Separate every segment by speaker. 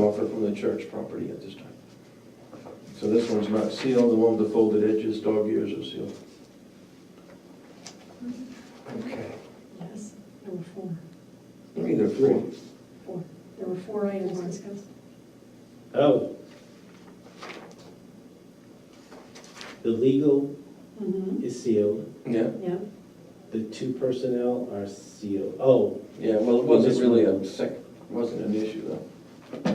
Speaker 1: offer from the church property at this time. So this one's not sealed, the one with the folded edges, dog ears are sealed.
Speaker 2: Okay.
Speaker 3: Yes, there were four,
Speaker 1: I mean, they're free.
Speaker 3: four. There were four items discussed.
Speaker 4: Oh. The legal
Speaker 3: Mm-hmm.
Speaker 4: is sealed,
Speaker 1: Yeah,
Speaker 3: Yeah,
Speaker 4: the two personnel are sealed. Oh,
Speaker 1: yeah, well, it wasn't really a sec, wasn't an issue though.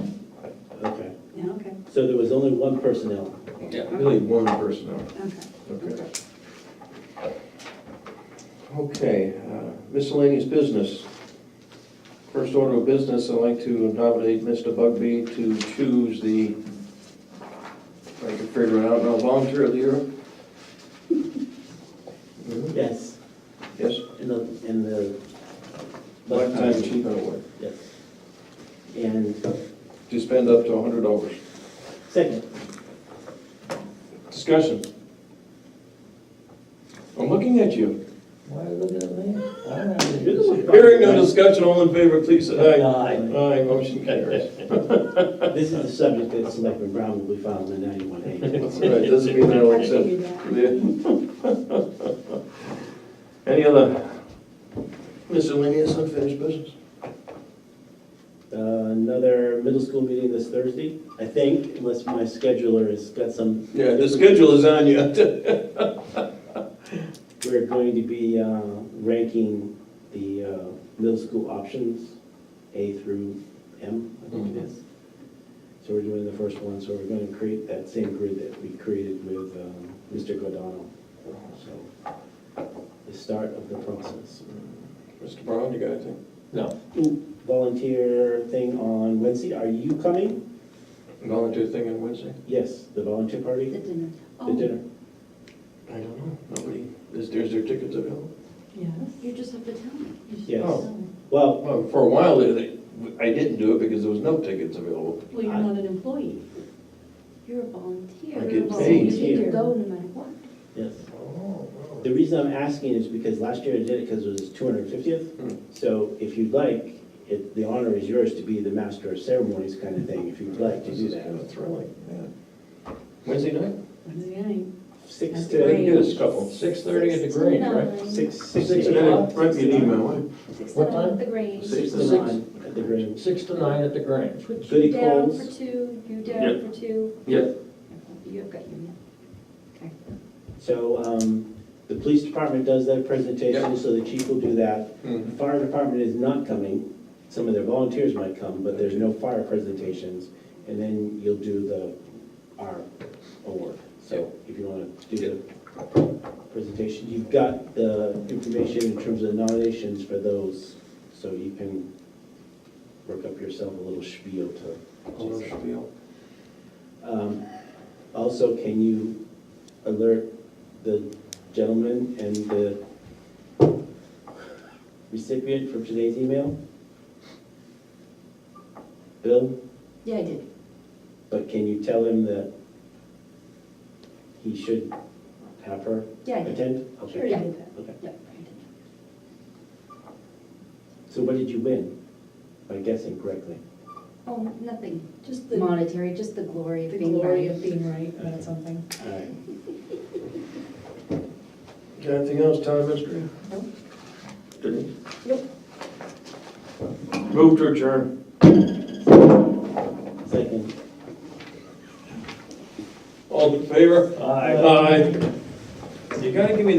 Speaker 4: okay.
Speaker 3: yeah, okay,
Speaker 4: So there was only one personnel.
Speaker 1: Yeah. Really one personnel.
Speaker 3: okay.
Speaker 1: Okay. Okay, uh, miscellaneous business. First order of business, I'd like to nominate Mr. Bugby to choose the, if I can figure it out, now volunteer of the year? Mhm.
Speaker 4: Yes,
Speaker 1: Yes,
Speaker 4: in the, in the.
Speaker 1: lifetime achievement award,
Speaker 4: Yes. And
Speaker 1: to spend up to hundred dollars.
Speaker 4: second,
Speaker 1: Discussion. I'm looking at you.
Speaker 2: Why are you looking at me? I don't have
Speaker 4: You're the one-
Speaker 2: any-
Speaker 1: Hearing no discussion, all in favor, please say aye.
Speaker 4: Aye.
Speaker 1: Aye, motion carries.
Speaker 4: this is the subject that Selectman Brown will be filing in ninety-one
Speaker 1: That's
Speaker 4: A.
Speaker 1: all right, doesn't mean I
Speaker 3: I
Speaker 1: don't accept.
Speaker 3: figured that.
Speaker 1: Yeah. Any other miscellaneous unfinished business?
Speaker 4: Uh, Another middle school meeting this Thursday, I think, unless my scheduler has got some.
Speaker 1: Yeah, the schedule is on you.
Speaker 4: We're going to be uh, ranking the uh, middle school options, A through M, I think it is. So we're doing the first one, so we're going to create that same grid that we created with um, Mr. Godano. So, the start of the process.
Speaker 1: Mr. Brown, you got anything?
Speaker 2: No.
Speaker 4: Volunteer thing on Wednesday, are you coming?
Speaker 1: Volunteer thing on Wednesday?
Speaker 4: Yes, the volunteer
Speaker 3: The
Speaker 4: party,
Speaker 3: dinner. Oh.
Speaker 4: the dinner.
Speaker 1: I don't know. Nobody, is there, is there tickets available?
Speaker 3: Yes. You just have to tell me. You just
Speaker 4: Yes.
Speaker 3: have to tell me.
Speaker 4: Well,
Speaker 1: Well, for a while, there, they- I didn't do it because there was no tickets available.
Speaker 3: Well, you're not an employee. You're a volunteer.
Speaker 1: I get
Speaker 3: You're a
Speaker 1: paid.
Speaker 3: volunteer. Oh, You can go no matter what.
Speaker 4: yes.
Speaker 2: Oh, oh.
Speaker 4: The reason I'm asking is because last year I did it because it was his 250th.
Speaker 1: Hmm.
Speaker 4: So if you'd like, it- the honor is yours to be the master of ceremonies kind of thing, if you'd like to
Speaker 1: This
Speaker 4: do
Speaker 1: is kind
Speaker 4: that.
Speaker 1: of thrilling, yeah. Wednesday night?
Speaker 3: Wednesday night.
Speaker 4: Six
Speaker 3: That's
Speaker 1: We can
Speaker 4: to,
Speaker 3: great.
Speaker 1: do this couple.
Speaker 2: Six thirty at the
Speaker 3: Six to
Speaker 2: Grange,
Speaker 3: nine.
Speaker 2: right?
Speaker 4: six, six
Speaker 1: Six
Speaker 4: to
Speaker 1: minutes,
Speaker 4: nine.
Speaker 1: write me an email, won't you?
Speaker 3: Six to
Speaker 2: What
Speaker 3: nine
Speaker 2: time?
Speaker 3: at the Grange.
Speaker 4: Six to
Speaker 2: Six.
Speaker 4: nine at the Grange.
Speaker 2: Six to nine at the Grange.
Speaker 3: Put
Speaker 4: Goody
Speaker 3: you down
Speaker 4: Coles.
Speaker 3: for two, you
Speaker 1: Yep.
Speaker 3: down for two.
Speaker 1: Yeah.
Speaker 3: You've got your, okay.
Speaker 4: So um, the police department does that presentation,
Speaker 1: Yep.
Speaker 4: so the chief will do that. The
Speaker 1: Mhm.
Speaker 4: fire department is not coming. Some of their volunteers might come, but there's no fire presentations. And then you'll do the, our award. So if you want to do the presentation, you've got the information in terms of nominations for those. So you can work up yourself a little spiel to.
Speaker 1: Hello, Shabil.
Speaker 4: Um, Also, can you alert the gentleman and the recipient from today's email? Bill,
Speaker 3: Yeah, I did.
Speaker 4: but can you tell him that he should have her
Speaker 3: Yeah, I did.
Speaker 4: attend?
Speaker 3: Sure
Speaker 4: Okay.
Speaker 3: you did that.
Speaker 4: Okay.
Speaker 3: Yeah, I did.
Speaker 4: So what did you win, by guessing correctly?
Speaker 3: Oh, nothing
Speaker 5: Just the,
Speaker 3: monetary, just the glory of
Speaker 5: the
Speaker 3: being
Speaker 5: glory of
Speaker 3: right.
Speaker 5: being right about something.
Speaker 4: All right.
Speaker 1: Got anything else, town administrator?
Speaker 3: Nope.
Speaker 1: Denise?
Speaker 5: Nope.
Speaker 1: Move to adjourn.
Speaker 4: Second.
Speaker 1: All in favor? Aye. Aye. You gotta give me